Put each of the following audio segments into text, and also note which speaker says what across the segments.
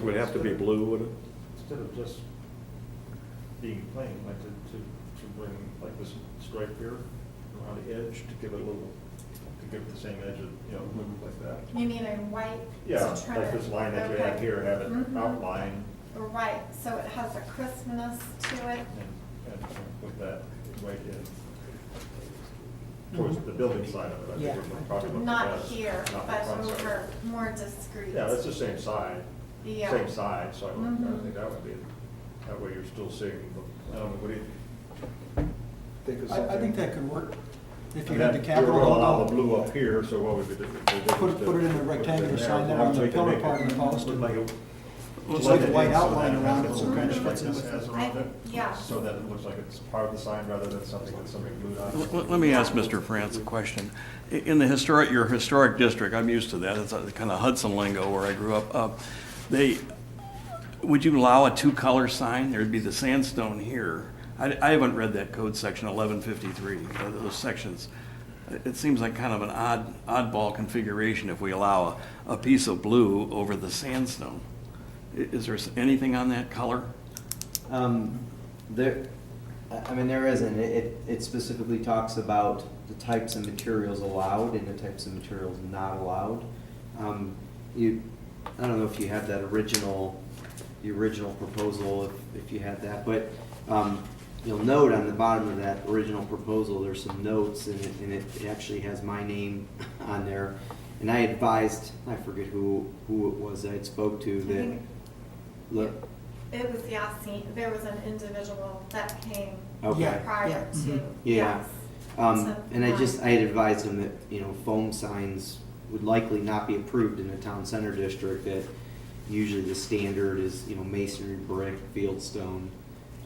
Speaker 1: Would it have to be blue, would it?
Speaker 2: Instead of just being plain, like to, to, to bring like this stripe here around the edge to give it a little, to give it the same edge of, you know, look like that.
Speaker 3: You mean a white?
Speaker 2: Yeah,
Speaker 3: so try
Speaker 2: like
Speaker 3: to-
Speaker 2: this line that you have
Speaker 3: okay.
Speaker 2: here, have it
Speaker 3: Mhm.
Speaker 2: outlined
Speaker 3: Right, so it has a crispness to it.
Speaker 2: and, and put that right in towards the building side of it. I
Speaker 4: Yeah.
Speaker 2: think would probably look the
Speaker 3: Not
Speaker 2: best,
Speaker 3: here,
Speaker 2: not the
Speaker 3: but
Speaker 2: front side.
Speaker 3: over, more discreet. um,
Speaker 2: Yeah, that's the same side,
Speaker 3: Yeah.
Speaker 2: same side, so I would- I
Speaker 3: Mhm.
Speaker 2: think that would be, that way you're still seeing, the- I don't know, what do you think of something?
Speaker 5: I, I think that could work, if you
Speaker 2: That-
Speaker 5: had the capital
Speaker 2: You're
Speaker 5: all
Speaker 2: allowed
Speaker 5: out.
Speaker 2: the blue up here, so what would be the? the
Speaker 5: Put it- put it in a
Speaker 2: difference to-
Speaker 5: rectangular
Speaker 2: uh, there?
Speaker 5: sign there
Speaker 2: I'm
Speaker 5: on the
Speaker 2: thinking
Speaker 5: pillar
Speaker 2: make it
Speaker 5: part of the post.
Speaker 2: look like a-
Speaker 5: Looks like a white
Speaker 2: so that
Speaker 5: outline
Speaker 2: it
Speaker 5: around
Speaker 2: has
Speaker 5: it,
Speaker 2: a
Speaker 5: so
Speaker 2: little
Speaker 5: kind of
Speaker 2: bit
Speaker 5: fits in
Speaker 2: like
Speaker 5: with it.
Speaker 2: this as around
Speaker 3: I-
Speaker 2: it,
Speaker 3: yeah.
Speaker 2: So that it looks like it's part of the sign rather than something that somebody glued on.
Speaker 6: Let- Let let me ask Mr. France a question. I- In the historic, your historic district, I'm used to that, it's kind of Hudson lingo where I grew up. Uh, They, would you allow a two-color sign? There'd be the sandstone here. I I haven't read that code section 1153, uh, those sections. It- It seems like kind of an odd oddball configuration if we allow a a piece of blue over the sandstone. I- Is there s- anything on that color?
Speaker 7: Um, there, I I mean, there isn't. It, it- it specifically talks about the types of materials allowed and the types of materials not allowed. Um, you, I don't know if you have that original, the original proposal, if, if you had that, but, um, you'll note on the bottom of that original proposal, there's some notes and it, and it it actually has my name on there. And I advised, I forget who, who it was I spoke to
Speaker 3: I
Speaker 7: that,
Speaker 3: think-
Speaker 7: look,
Speaker 3: It was Yasin, there was an individual that came
Speaker 7: okay.
Speaker 5: Yeah.
Speaker 3: prior to.
Speaker 5: mhm.
Speaker 7: mm-hmm. Yeah.
Speaker 3: yes.
Speaker 7: Um,
Speaker 3: So,
Speaker 7: and I just,
Speaker 3: um,
Speaker 7: I had advised him that, you know, foam signs would likely not be approved in a town center district that usually the standard is, you know, masonry, brick, fieldstone.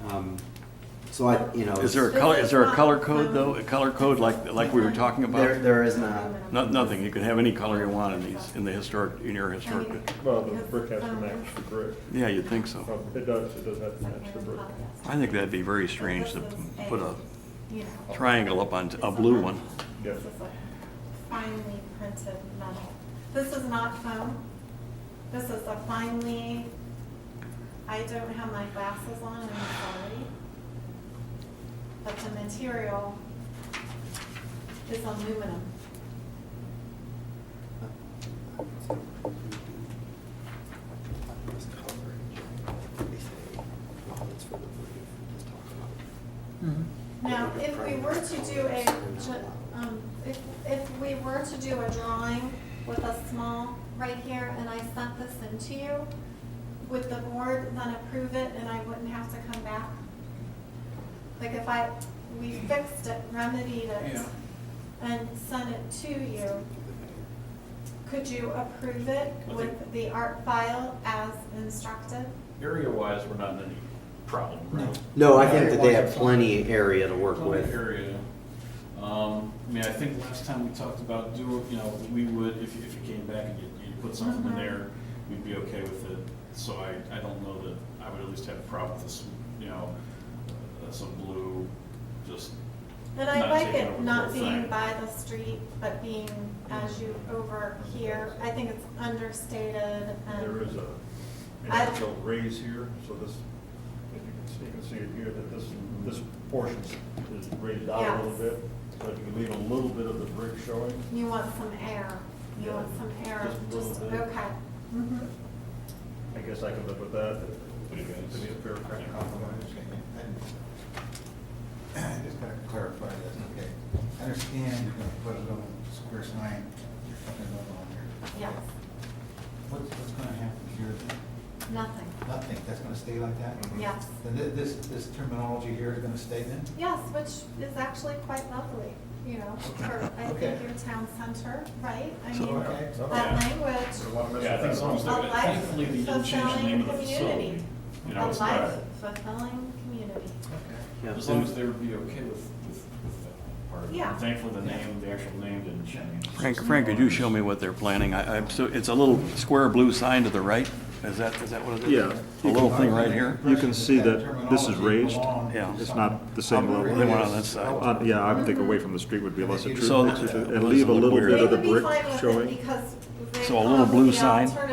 Speaker 7: Um, so I, you know.
Speaker 6: Is there a
Speaker 3: This
Speaker 6: color,
Speaker 3: is
Speaker 6: is there a
Speaker 3: not
Speaker 6: color code,
Speaker 3: found.
Speaker 6: though? A color code like, like we were talking about?
Speaker 7: There, there is not.
Speaker 6: No- Nothing, you can have any color you want in these, in the historic, in your
Speaker 3: I
Speaker 6: historic,
Speaker 3: mean,
Speaker 2: Well, the
Speaker 3: because,
Speaker 2: brick has to
Speaker 3: um,
Speaker 2: match the brick.
Speaker 6: yeah, you'd think so.
Speaker 2: Well, It does, it does have to
Speaker 3: something
Speaker 2: match the brick.
Speaker 3: about this.
Speaker 6: I think that'd be very strange to
Speaker 3: This is
Speaker 6: put a
Speaker 3: you know,
Speaker 6: triangle up on,
Speaker 3: it's
Speaker 6: a blue
Speaker 3: metal.
Speaker 6: one.
Speaker 2: Yeah.
Speaker 3: This is a finely printed metal. This is not foam. This is a finely, I don't have my glasses on, I'm sorry. But the material is aluminum. Now, if we were to do a, um, if, if we were to do a drawing with a small right here, and I sent this in to you, would the board then approve it and I wouldn't have to come back? Like if I, we fixed it, remedied it,
Speaker 4: Yeah.
Speaker 3: and sent it to you, could you approve it
Speaker 8: I
Speaker 3: with
Speaker 8: think-
Speaker 3: the art file as instructed?
Speaker 8: Area-wise, we're not in any problem, right?
Speaker 7: No, I think that they have plenty of area to work
Speaker 8: Plenty of
Speaker 7: with.
Speaker 8: Area. Um, I mean, I think last time we talked about do, you know, we would, if, you- if you came back and you, you put something in
Speaker 3: Mhm.
Speaker 8: there, we'd be okay with it. So I, I don't know that, I would at least have a problem with this, you know, uh, some blue, just,
Speaker 3: And I
Speaker 8: Not
Speaker 3: like
Speaker 8: taking
Speaker 3: it
Speaker 8: over
Speaker 3: not
Speaker 8: the
Speaker 3: being
Speaker 8: thing.
Speaker 3: by the street, but being as you over here. I think it's understated
Speaker 2: There is
Speaker 3: and,
Speaker 2: a, an
Speaker 3: Um, I-
Speaker 2: actual raise here, so this, if you can see, you can see it here, that this, this portion is raised out a little
Speaker 3: Yes.
Speaker 2: bit. So if you can leave a little bit of the brick showing.
Speaker 3: you want some air. You want some air,
Speaker 2: Just a little
Speaker 3: just,
Speaker 2: bit.
Speaker 3: okay. Mhm.
Speaker 2: I guess I could live with that.
Speaker 8: Pretty good.
Speaker 2: To be a fair compromise.
Speaker 9: I just gotta clarify this, okay? I understand you're gonna put a little square sign, you're fucking up on there.
Speaker 3: Yes,
Speaker 9: What's, what's gonna happen here then?
Speaker 3: nothing.
Speaker 9: Nothing, that's gonna stay like that?
Speaker 3: Yes.
Speaker 9: Then thi- this, this terminology here is gonna stay then?
Speaker 3: Yes, which is actually quite lovely, you know, for, I think
Speaker 9: Okay.
Speaker 3: your town center, right? I
Speaker 6: So-
Speaker 3: mean,
Speaker 9: Okay.
Speaker 3: that
Speaker 8: Yeah.
Speaker 3: language,
Speaker 8: yeah, I think as long as they're,
Speaker 3: A life
Speaker 8: thankfully, they didn't change the name of the
Speaker 3: fulfilling
Speaker 8: facility.
Speaker 3: community.
Speaker 8: You
Speaker 3: a
Speaker 8: know, it's not,
Speaker 3: life fulfilling community.
Speaker 9: Okay.
Speaker 7: Yeah.
Speaker 8: as long as they would be okay with, with, with that part.
Speaker 3: Yeah.
Speaker 8: Thankfully, the name, the actual name didn't change.
Speaker 6: Frank, Frank, could you show me what they're planning? I, I'm so, it's a little square blue sign to the right, is that, is that what it is?
Speaker 2: Yeah.
Speaker 6: A little thing right here?
Speaker 2: You can see that this is raised.
Speaker 6: Yeah.
Speaker 2: It's not the same level.
Speaker 6: They went on that side.
Speaker 9: Oh,
Speaker 2: Uh, Yeah, I would think away from the street would be less
Speaker 9: So
Speaker 2: intrusive,
Speaker 6: that-
Speaker 2: and leave a little bit
Speaker 3: They
Speaker 2: of the
Speaker 3: would be
Speaker 2: brick
Speaker 3: fine with it
Speaker 2: showing.
Speaker 3: because they
Speaker 6: So a little blue
Speaker 3: probably
Speaker 6: sign.
Speaker 3: alternative